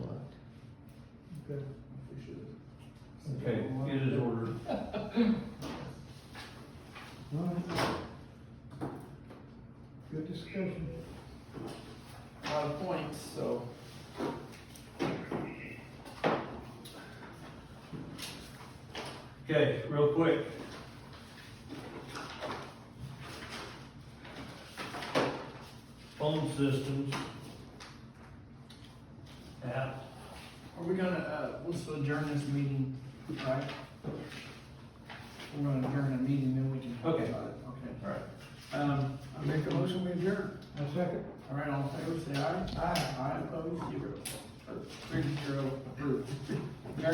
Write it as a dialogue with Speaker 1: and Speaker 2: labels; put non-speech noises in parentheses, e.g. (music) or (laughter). Speaker 1: then we should.
Speaker 2: Okay, it is ordered.
Speaker 1: Alright. Good discussion.
Speaker 3: a lot of points, so.
Speaker 2: Okay, real quick. Phone systems. App.
Speaker 3: Are we gonna, uh, let's adjourn this meeting, right? We're gonna adjourn the meeting, then we can talk
Speaker 2: Okay.
Speaker 3: about it, okay.
Speaker 2: All right.
Speaker 3: Um,
Speaker 1: I make a motion, we adjourn. A second.
Speaker 3: all right, all in favor, say aye. Aye. Aye, opposed, zero. Three, zero, approved. (laughs)